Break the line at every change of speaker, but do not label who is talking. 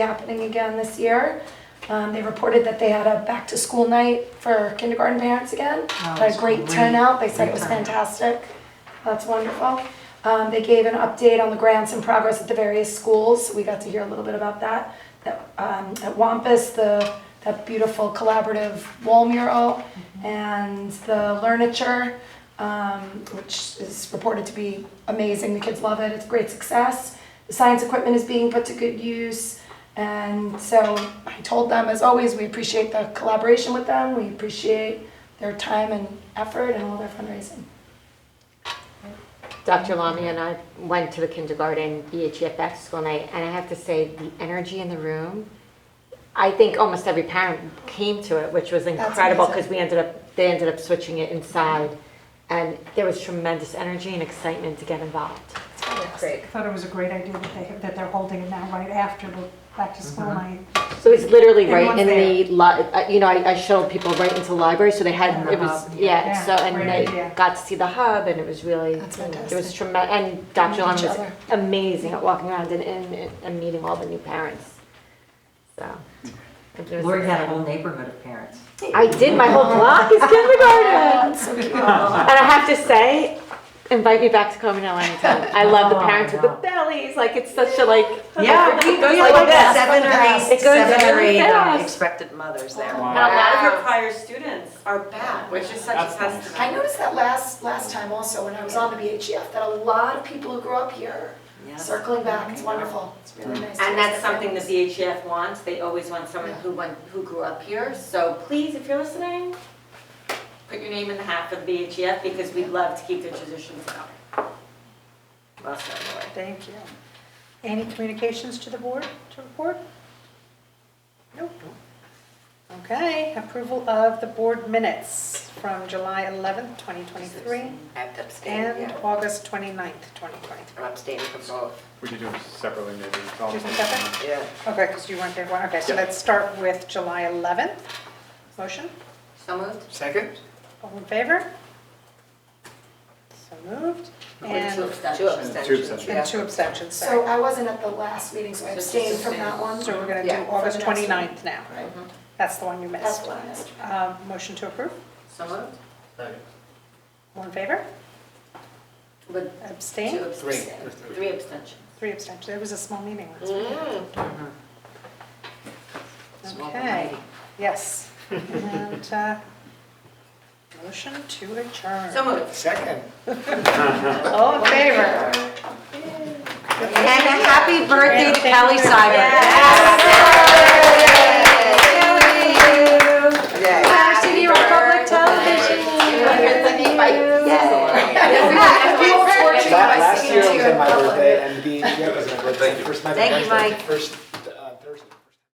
happening again this year. Um, they reported that they had a back-to-school night for kindergarten parents again.
Oh,
Had a
it's
great
great.
turnout, they said it
Great
was
turnout.
fantastic. That's wonderful. Um, they gave an update on the grants in progress at the various schools, we got to hear a little bit about that. That, um, at Wampus, the, that beautiful collaborative wall mural
Mm-hmm.
and the Learniture, um, which is reported to be amazing, the kids love it, it's a great success. The science equipment is being put to good use. And so I told them, as always, we appreciate the collaboration with them. We appreciate their time and effort and all their fundraising.
Dr. Lamy and I went to the kindergarten E BHF back to school night, and I have to say, the energy in the room, I think almost every parent came to it, which was incredible,
amazing.
because we ended up, they ended up switching it inside. And there was tremendous energy and excitement to get involved.
It's fantastic.
I thought it was a great idea that they, that they're holding it now, right after the back to school night.
So it's literally right
Everyone's
in the, li- uh, you know, I I showed people right into the library, so they had, it was, yeah,
Yeah,
so, and
great
they
idea.
got to see the hub, and it was really,
That's
it was
fantastic.
tremendous, and Dr.
Meet each
Lon was
other.
amazing at walking around and, and, and meeting all the new parents, so. it was
Lori had a
exciting.
whole neighborhood of parents.
I did, my whole block is kindergarten,
That's so cute.
and I have to say, invite me back to Cominella anytime, I love the
Oh,
parents with the
no.
bellies, like, it's such a like.
we,
goes like this.
Seven or
It
eight,
goes
seven or
really
eight um,
fast.
expected mothers there.
And a lot of your
prior students are back, which is such a testament.
I noticed that last, last time also when I was on the BHF, that a lot of people who grew up here
Yes.
circling back. It's wonderful. It's really nice. to
And
hear
that's
their
something the
families.
VHF wants, they always want someone who went, who grew up here, so please, if you're listening, put your name in the hat for the VHF, because we'd love to keep the traditions going. Well said, Lori.
Thank you. Any communications to the board to report? Nope. Okay, approval of the board minutes from July 11th, 2023,
I have to abstain,
and
yeah.
August 29th, 2023.
I'm abstaining from both.
We could do them separately maybe. It's all-
Just separate?
Yeah.
Okay, because you weren't there, well, okay, so
Yeah.
let's start with July 11th. Motion,
So moved?
Second?
all in favor? So moved.
Two
And
Two
abstentions.
abstentions,
abstentions.
yeah.
and two abstentions,
So
sorry.
I wasn't at the last meeting, so I
So just
abstained from that
abstain.
one.
So we're going to
Yeah,
do
for
August
the next one.
29th now.
Right.
That's the one you
That's
missed.
what I missed.
Uh, Motion to approve?
So moved?
All in favor?
With two
Abstain?
abstentions. Three abstentions.
Three abstentions. It was a small meeting last week.
Mm.
Small
Okay,
meeting.
yes. And uh, motion to adjourn.
So moved.
Second.
All in favor?
And a happy birthday to Kelly Cyber.
Yeah.
Varsity on public television.
People were
Last
singing
year
to
was
you in
my
public.
birthday and the, yeah, it was my birthday.
you.
First night of
Thank you,
birthday,
Mike.
First uh,